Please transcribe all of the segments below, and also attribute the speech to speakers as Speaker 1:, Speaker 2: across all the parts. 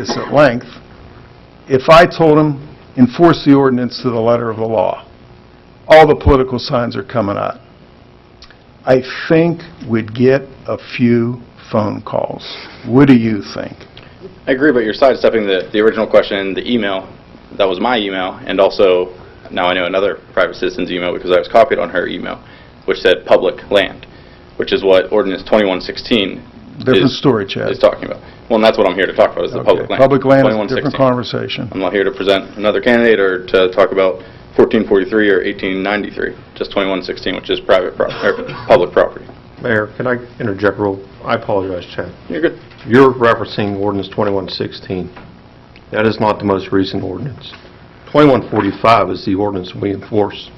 Speaker 1: this at length, if I told him, enforce the ordinance to the letter of the law, all the political signs are coming out, I think we'd get a few phone calls. What do you think?
Speaker 2: I agree, but you're sidestepping the, the original question, the email, that was my email, and also, now I know another private citizen's email because I was copied on her email, which said public land, which is what ordinance 2116
Speaker 1: Different
Speaker 2: is,
Speaker 1: story, Chad.
Speaker 2: is talking about. Well, and that's what I'm here to talk about, is the public
Speaker 1: Okay,
Speaker 2: land.
Speaker 1: Public land is a different
Speaker 2: 2116.
Speaker 1: conversation.
Speaker 2: I'm not here to present another candidate or to talk about 1443 or 1893, just 2116, which is private, pro- or public property.
Speaker 3: Mayor, can I interject real, I apologize, Chad.
Speaker 2: You're good.
Speaker 3: You're referencing ordinance 2116. That is not the most recent ordinance. 2145 is the ordinance we enforce.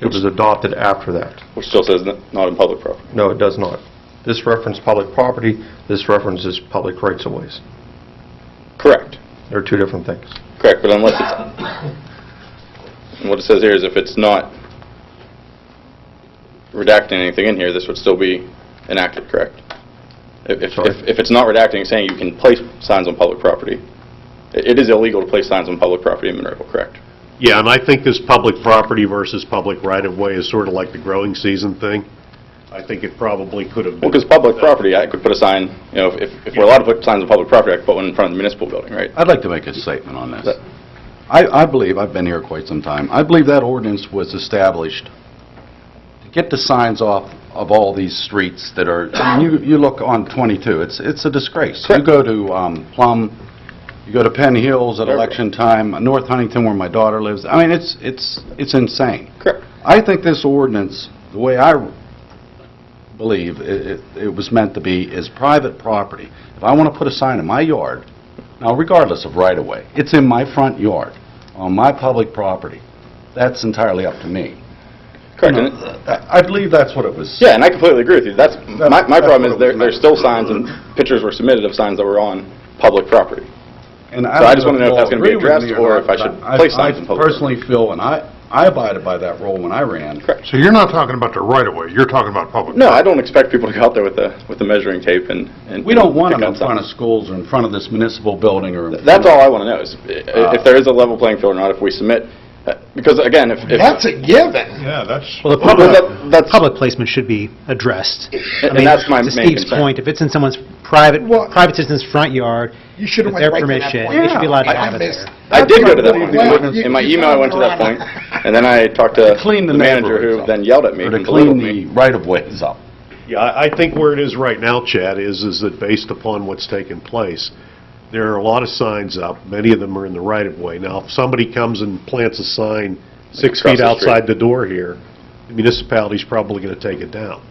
Speaker 3: It was adopted after that.
Speaker 2: Which still says n- not in public property.
Speaker 3: No, it does not. This references public property, this references public rights-of-ways.
Speaker 2: Correct.
Speaker 3: They're two different things.
Speaker 2: Correct, but unless it's, and what it says here is if it's not redacting anything in here, this would still be enacted, correct? If, if-
Speaker 3: Sorry?
Speaker 2: if, if it's not redacting, saying you can place signs on public property, it it is illegal to place signs on public property in Monroeville, correct?
Speaker 4: Yeah, and I think this public property versus public right-of-way is sort of like the growing season thing. I think it probably could have been...
Speaker 2: Well, because public property, I could put a sign, you know, if, if we're allowed to put signs on public property, I could put one in front of the municipal building, right?
Speaker 5: I'd like to make a statement on this. I, I believe, I've been here quite some time, I believe that ordinance was established to get the signs off of all these streets that are, I mean, you, you look on 22, it's, it's a disgrace. You go to um, Plum, you go to Penn Hills at election time, North Huntington where my daughter lives, I mean, it's, it's, it's insane.
Speaker 2: Correct.
Speaker 5: I think this ordinance, the way I believe it it- it was meant to be, is private property. If I want to put a sign in my yard, now regardless of right-of-way, it's in my front yard, on my public property, that's entirely up to me.
Speaker 2: Correct, and it-
Speaker 5: I I believe that's what it was.
Speaker 2: Yeah, and I completely agree with you. That's, my, my
Speaker 5: that's
Speaker 2: problem
Speaker 5: what
Speaker 2: is
Speaker 5: it
Speaker 2: there,
Speaker 5: was
Speaker 2: there's still signs and pictures were submitted of signs that were on public property.
Speaker 5: And
Speaker 2: So I
Speaker 5: don't
Speaker 2: just wanna know if
Speaker 5: you
Speaker 2: that's
Speaker 5: all
Speaker 2: gonna be
Speaker 5: agree with
Speaker 2: addressed
Speaker 5: me
Speaker 2: or
Speaker 5: not,
Speaker 2: if I
Speaker 5: but
Speaker 2: should place signs in
Speaker 5: I
Speaker 2: public.
Speaker 5: personally feel, and I I abided by that rule when I ran.
Speaker 2: Correct.
Speaker 6: So you're not talking about the right-of-way, you're talking about public.
Speaker 2: No, I don't expect people to go out there with a, with a measuring tape and, and.
Speaker 5: We don't want
Speaker 2: pick
Speaker 5: them in
Speaker 2: out signs.
Speaker 5: front of schools or in front of this municipal building or... in front
Speaker 2: That's
Speaker 5: of-
Speaker 2: all I want to know is
Speaker 1: Uh,
Speaker 2: i- if there is a level playing field or not, if we submit, uh, because again, if. if-
Speaker 6: That's a given. Yeah, that's.
Speaker 7: Well, the
Speaker 2: Well, that- that's-
Speaker 7: public, public placement should be addressed. I
Speaker 2: and
Speaker 7: mean,
Speaker 2: that's my main
Speaker 7: To Steve's
Speaker 2: concern.
Speaker 7: point, if it's in someone's private,
Speaker 6: Well-
Speaker 7: private citizen's front yard,
Speaker 6: You shoould've
Speaker 7: with
Speaker 6: went
Speaker 7: their
Speaker 6: right to that
Speaker 7: permission,
Speaker 6: point.
Speaker 7: they should be allowed to
Speaker 6: Yeah, I- I
Speaker 7: have it
Speaker 6: missed.
Speaker 7: there.
Speaker 2: I did go to that
Speaker 6: That's
Speaker 2: point.
Speaker 6: what I
Speaker 2: In my-
Speaker 6: believe.
Speaker 2: In my
Speaker 6: You- you
Speaker 2: email, I went to that point,
Speaker 6: found the
Speaker 2: and then I talked to
Speaker 5: clean
Speaker 2: the
Speaker 5: the
Speaker 2: manager
Speaker 5: neighborhoods
Speaker 2: who
Speaker 5: up.
Speaker 2: then yelled at me
Speaker 5: Or
Speaker 2: and
Speaker 5: to
Speaker 2: belittled
Speaker 5: clean
Speaker 2: me.
Speaker 5: the right-of-ways up.
Speaker 4: Yeah, I I think where it is right now, Chad, is, is that based upon what's taken place, there are a lot of signs up, many of them are in the right-of-way. Now, if somebody comes and plants a sign six
Speaker 2: Across
Speaker 4: feet
Speaker 2: the street.
Speaker 4: outside the door here, the municipality's probably going to take it down,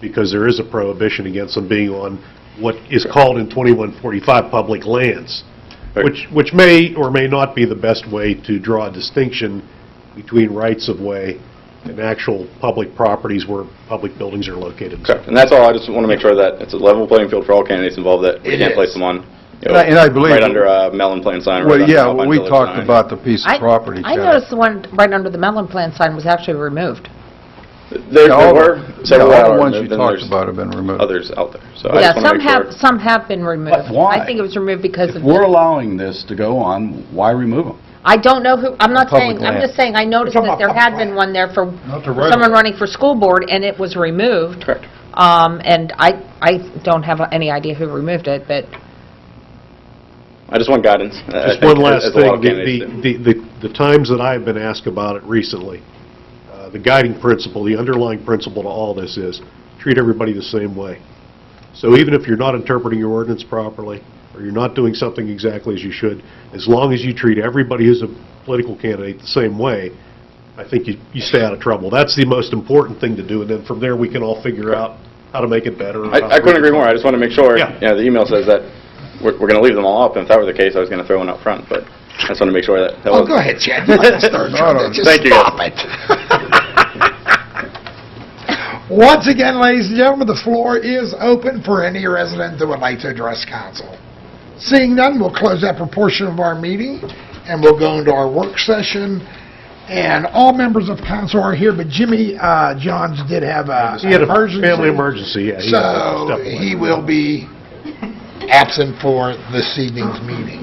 Speaker 4: because there is a prohibition against them being on what is called in 2145 public lands,
Speaker 2: Right.
Speaker 4: which, which may or may not be the best way to draw a distinction between rights-of-way and actual public properties where public buildings are located and so
Speaker 2: Correct, and that's all, I just want to make sure that it's a level playing field for all candidates involved, that we
Speaker 6: It
Speaker 2: can't
Speaker 6: is.
Speaker 2: place them on, you know,
Speaker 1: And I- and I believe-
Speaker 2: right under a melon plant sign, right
Speaker 1: Well,
Speaker 2: under
Speaker 1: yeah,
Speaker 2: a
Speaker 1: well, we
Speaker 2: village
Speaker 1: talked
Speaker 2: sign.
Speaker 1: about the piece
Speaker 8: I-
Speaker 1: of property,
Speaker 8: I
Speaker 1: Chad.
Speaker 8: noticed the one right under the melon plant sign was actually removed.
Speaker 2: There
Speaker 1: Yeah,
Speaker 2: there
Speaker 1: all the-
Speaker 2: were
Speaker 1: yeah,
Speaker 2: several
Speaker 1: All
Speaker 2: out
Speaker 1: the
Speaker 2: there,
Speaker 1: ones
Speaker 2: and
Speaker 1: you
Speaker 2: then
Speaker 1: talked
Speaker 2: there's
Speaker 1: about have been removed.
Speaker 2: others out there, so I
Speaker 8: Yeah,
Speaker 2: just want to
Speaker 8: some
Speaker 2: make sure.
Speaker 8: have, some have been removed.
Speaker 5: But why?
Speaker 8: I think it was removed because
Speaker 5: If
Speaker 8: of,
Speaker 5: we're allowing this to go on, why remove them?
Speaker 8: I don't know who, I'm not
Speaker 1: Public
Speaker 8: saying, I'm
Speaker 1: land.
Speaker 8: just saying, I noticed
Speaker 6: We're talking
Speaker 8: that there
Speaker 6: about
Speaker 8: had
Speaker 6: public
Speaker 8: been one there for
Speaker 6: Not the right
Speaker 8: someone
Speaker 6: of way.
Speaker 8: running for school board, and it was removed.
Speaker 2: Correct.
Speaker 8: Um, and I, I don't have any idea who removed it, but
Speaker 2: I just want guidance. uh, I
Speaker 4: Just
Speaker 2: think,
Speaker 4: one
Speaker 2: as-
Speaker 4: last
Speaker 2: as a lot
Speaker 4: thing,
Speaker 2: of
Speaker 4: the,
Speaker 2: candidates do.
Speaker 4: the, the the times that I have been asked about it recently, uh, the guiding principle, the underlying principle to all this is, treat everybody the same way. So even if you're not interpreting your ordinance properly, or you're not doing something exactly as you should, as long as you treat everybody who's a political candidate the same way, I think you, you stay out of trouble. That's the most important thing to do, and then from there, we can all figure out how to make it better. and how to
Speaker 2: I I couldn't
Speaker 4: make it-
Speaker 2: agree more, I just want to make sure, you
Speaker 4: Yeah.
Speaker 2: know, the email says that we're we're going to leave them all up, and if that were the case, I was going to throw one up front, but I just want to make sure that that
Speaker 6: Oh,
Speaker 2: was...
Speaker 6: go ahead, Chad. Let us start trying to- Just
Speaker 2: Thank you, guys.
Speaker 6: stop it. Once again, ladies and gentlemen, the floor is open for any resident that would like to address council. Seeing none, we'll close that proportion of our meeting, and we'll go into our work session. And all members of council are here, but Jimmy uh, Johns did have a
Speaker 4: He had a
Speaker 6: emergency,
Speaker 4: family emergency, yeah. he had
Speaker 6: So
Speaker 4: to step away.
Speaker 6: he will be absent for this evening's meeting.